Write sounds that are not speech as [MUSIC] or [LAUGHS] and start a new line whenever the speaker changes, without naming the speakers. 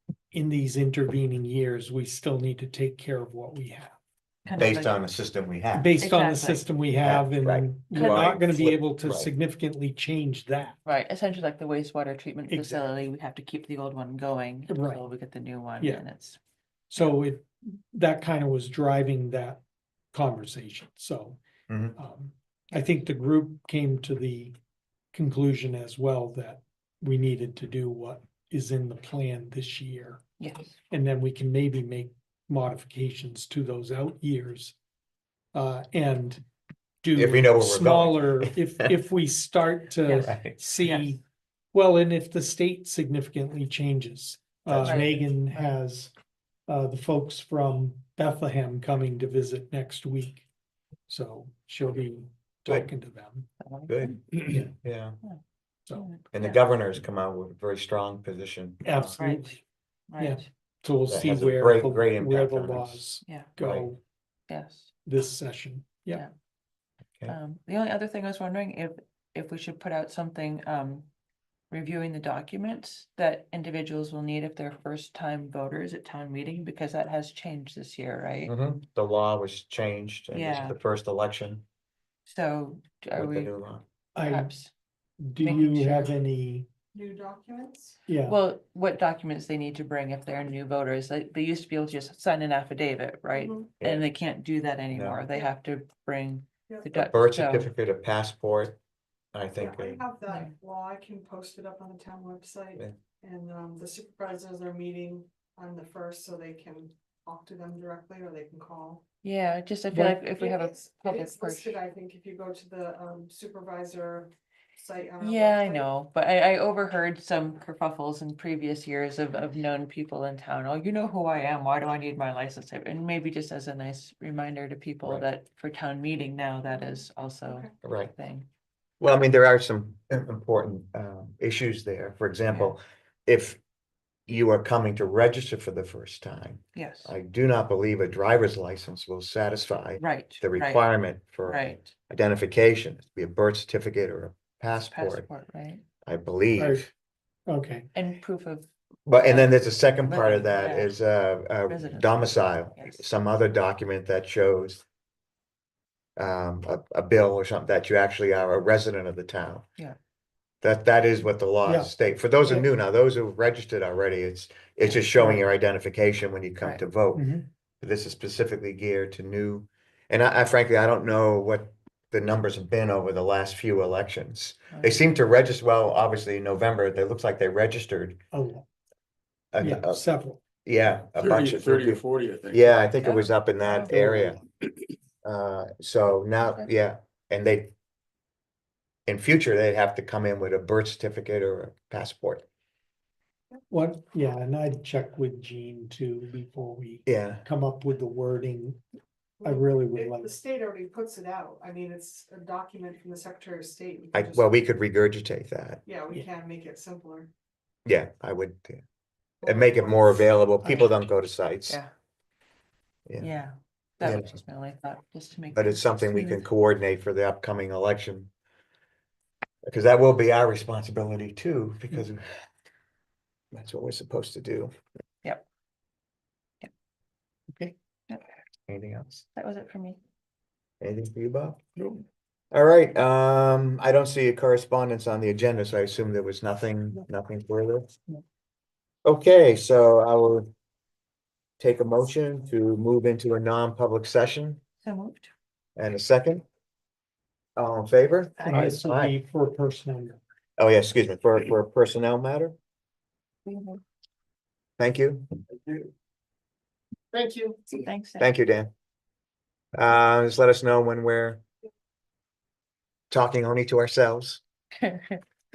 in these intervening years, we still need to take care of what we have.
kind of
based
like-
on the system we have.
Based on the
Exactly.
system we
Yeah,
have and
right.
we're not gonna be
Right.
able to
Right.
significantly change that.
Right, essentially like the wastewater treatment
Exactly.
facility, we have to keep the old one going
Right.
until we get the new one
Yeah.
and it's.
So it, that kind of was driving that conversation, so.
Mhm.
um, I think the group came to the conclusion as well that we needed to do what is in the plan this year.
Yes.
And then we can maybe make modifications to those out years. Uh, and do.
If we know where we're going.
Smaller,
[LAUGHS]
if, if we start to
[LAUGHS] Right.
see,
Yes.
well, and if the state significantly changes.
That's
Uh,
right.
Megan has, uh, the folks from Bethlehem coming to visit next week. So she'll be
Good.
talking to them,
I like
Good,
Yeah.
yeah.
so,
And the
Yeah,
governor's come out with a very strong position. uh,
absolutely, yeah.
Right,
so we'll
That
see
has a
where,
great-
the-
great
where
impact
the
on us.
laws
yeah,
go
yes.
this session, yeah.
Yeah.
Um, the only other thing I was wondering if, if we should put out something, um, reviewing the documents that individuals will need if they're first time voters at town meeting, because that has changed this year, right?
Mhm. The law was changed in
Yeah.
the first election
So are
with the
we
new law.
I,
perhaps,
do
making
you
sure-
have any,
new documents.
yeah,
well, what documents they need to bring if they're new voters, like, they used to be able to just sign an affidavit, right?
Mhm.
Mm-hmm. Yeah.
And they can't do that anymore, they have to bring
Yeah.
the. doc-
Birth
so-
certificate, a passport, I
Yeah,
think. uh,
I
they-
have that
Yeah.
law, I can post it up on the town website, and, um, the supervisors are meeting on the first, so they can talk to them directly, or they can call.
Yeah, just I feel
But-
like if we have a
It's-
public
It's
person.
listed, I think, if you go to the, um, supervisor site. on our
Yeah, I
website.
know, but I, I overheard some kerfuffles in previous years of, of known people in town, oh, you know who I am, why do I need my license? tape?" And maybe just as a nice reminder to people
Right.
that for town meeting now, that is also
Okay.
a
Right.
thing.
Well, I mean, there are some im- important um issues there. For example, if you are coming to register for the first time,
Yes,
I do not believe a driver's license will satisfy
right.
the
right,
requirement for
Right,
identification, It'd be a birth certificate or a passport,
passport, right,
I believe.
okay,
and proof of,
But, and then there's a second part of
Living,
that
yeah.
is uh, uh,
Residence.
domicile,
Yes.
some other document that shows um, a, a bill or something that you actually are a resident of the town.
Yeah.
That, that is what the
Yeah.
laws state. For those who are
Yeah.
new now, those who've registered already, it's, it's just showing your identification when you come
Right.
to vote.
mhm,
This is specifically geared to new, and I I frankly, I don't know what the numbers have been over the last few elections. They
right,
seem to register, well, obviously in November, they looks like they registered.
oh,
a-
yeah,
a-
several.
Yeah, a bunch
Thirty,
of.
thirty or forty, I think.
Yeah, I think it
Yeah.
was up in that
Yeah.
area. Uh, so now,
Okay.
yeah, and they. In future, they'd have to come in with a birth certificate or a passport.
What, yeah, and I'd check with Jean too before we
Yeah,
come up with the wording. I
Well,
really would
it-
like-
The state already puts it out, I mean, it's a document from the Secretary of State. we can
I,
just-
well, we could regurgitate that.
Yeah, we
Yeah.
can make it simpler.
Yeah, I would. uh, And make it more available. People don't go to sites.
yeah.
Yeah.
Yeah,
Yeah.
that was just my only thought, just to make.
But
things
it's something we can
smooth.
coordinate for the upcoming election. Because that will be our responsibility
Mm-hmm.
too, because that's what we're supposed to do.
Yep. Yep.
Okay.
Yep.
Anything else?
That was it for me.
Anything for you, Bob? All right, um, I don't see a correspondence on the agenda, so I assume there was nothing, nothing further.
No.
Okay, so I will take a motion to move into a non-public session
So moved.
and a second. All in favor?
And this will
Aye.
be for personnel.
Oh, yeah, excuse me, for, for a personnel matter.
We moved.
Thank you.
Thank you.
Thanks. Dan.
Thank you, Dan.
[LAUGHS]
Uh, just let us know when we're talking only to ourselves.